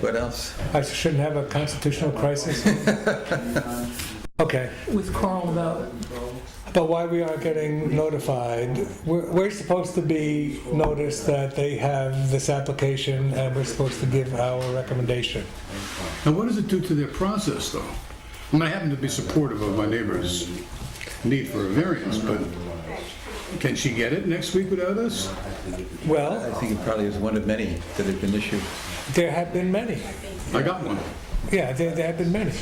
What else? I shouldn't have a constitutional crisis. Okay, with Carl about, but why we aren't getting notified? We're, we're supposed to be noticed that they have this application and we're supposed to give our recommendation. Now, what does it do to their process, though? I mean, I happen to be supportive of my neighbor's need for a variance, but can she get it next week without us? I Well, think it probably is one of many that have been issued. there have been many. I got one. Yeah, there, there have been many.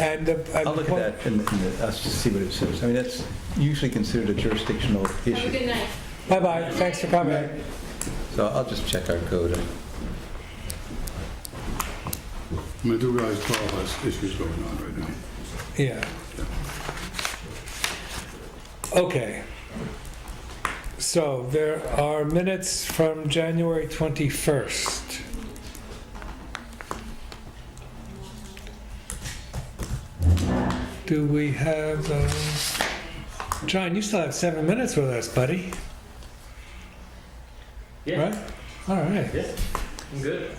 And. uh, I'll look well, at that and and us to see what it says. I mean, that's usually considered a jurisdictional Have a issue. good night. Bye-bye, thanks for coming. So I'll just check our code. I mean, I do realize Carl has issues going on right now. Yeah. Okay. So there are minutes from January 21st. Do we have, those? John, you still have seven minutes with us, buddy, Yeah, right? All right. I'm good.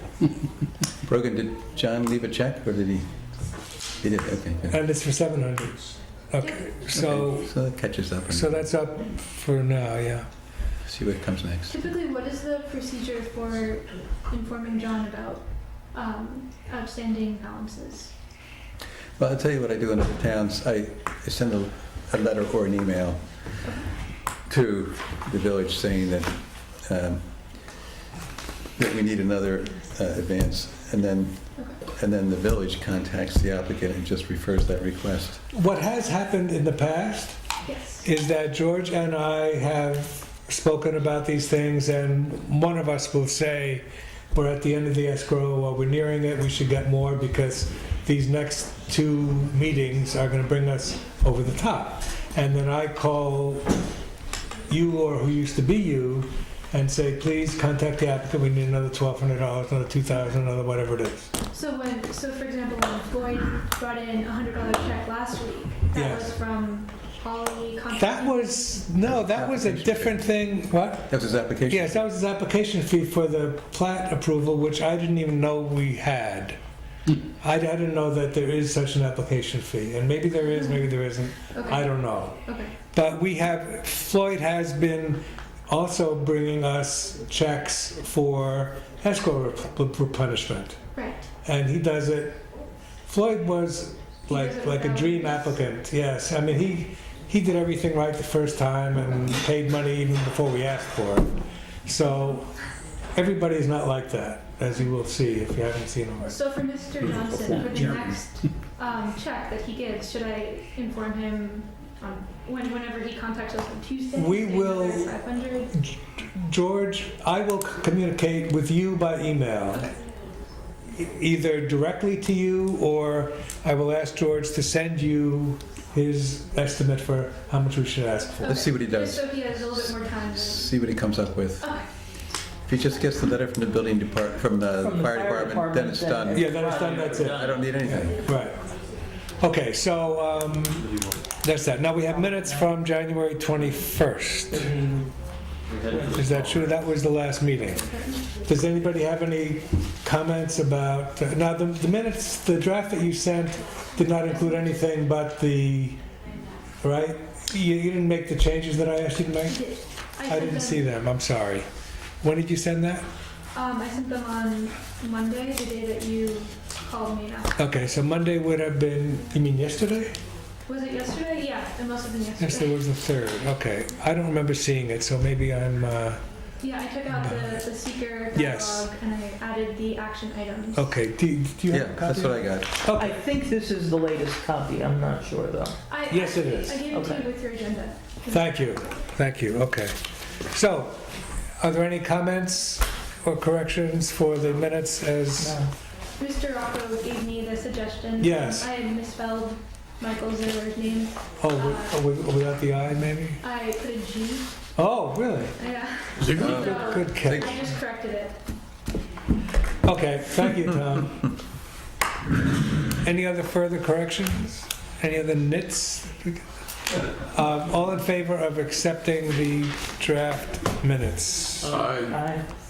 Brogan, did John leave a check or did he? He did, okay. good. And it's for 700. Okay, so, Okay, So that catches up so and that's up for now, yeah. see what comes next. Typically, what is the procedure for informing John about um, outstanding balances? Well, I'll tell you what I do in other towns. I I send a, a letter or an email to the village saying that, um, that we need another uh, advance. And then, and then the village contacts the applicant and just refers that request. What has happened in the past Yes. is that George and I have spoken about these things, and one of us will say, we're at the end of the escrow, or we're nearing it, we should get more, because these next two meetings are gonna bring us over the top. And then I call you or who used to be you and say, please contact the applicant, we need another twelve hundred dollars, another two thousand, another whatever it is. So when, so for example, when Floyd brought in a hundred dollar check last week, that Yes. was from Holly. Constantine. That was, no, that was a different thing, what? That was his application? Yes, that was his application fee for the plat approval, which I didn't even know we had. I, I didn't know that there is such an application fee, and maybe there is, maybe there isn't, Okay. I don't know. Okay. But we have, Floyd has been also bringing us checks for escrow rep- replenishment, Right. and he does it, Floyd was He does like, it like a without- dream applicant, yes, I mean, he, he did everything right the first time and paid money even before we asked for it. So, everybody's not like that, as you will see if you haven't seen him. So for Mr. Johnson, for the next um, check that he gives, should I inform him on when, whenever he contacts us on Tuesday? We saying will- another 500? George, I will c- communicate with you by email, e- either directly to you, or I will ask George to send you his estimate for how much we should ask for. Let's see what he Just does. so he has a little bit more time. to- See what he comes up with. Okay. If he just gets the letter from the building depart, from the From the fire fire department, then it's done. department, Yeah, then it's done, that's it. I don't need anything. Right. Okay, so um, that's that. Now we have minutes from January 21st. Is that true? That was the last meeting. Does anybody have any comments about, uh, now the the minutes, the draft that you sent did not include anything but the, right? You you didn't make the changes that I asked you to make? I sent didn't them- see them, I'm sorry. When did you send that? Um, I sent them on Monday, the day that you called me up. Okay, so Monday would have been, you mean yesterday? Was it yesterday? Yeah, it must have been Yes, yesterday. there was the third, okay. I don't remember seeing it, so maybe I'm, uh, Yeah, I took out the, the seeker Yes. catalog and I added the action items. okay, do do you Yeah, have a copy? that's what I got. I Okay, think this is the latest copy, I'm not sure though. I, Yes, it is. I gave it to Okay. you with your agenda. thank you, thank you, okay. So, are there any comments or corrections for the minutes as, Mr. Rocco gave me the suggestion. Yes. I had misspelled Michael Ziller's name. oh, wi- wi- without the I maybe? I put a G. Oh, really? Yeah. Ziegler? So Good catch. I just corrected it. Okay, thank you, Tom. Any other further corrections? Any other nits? Um, All in favor of accepting the draft minutes? I Aye.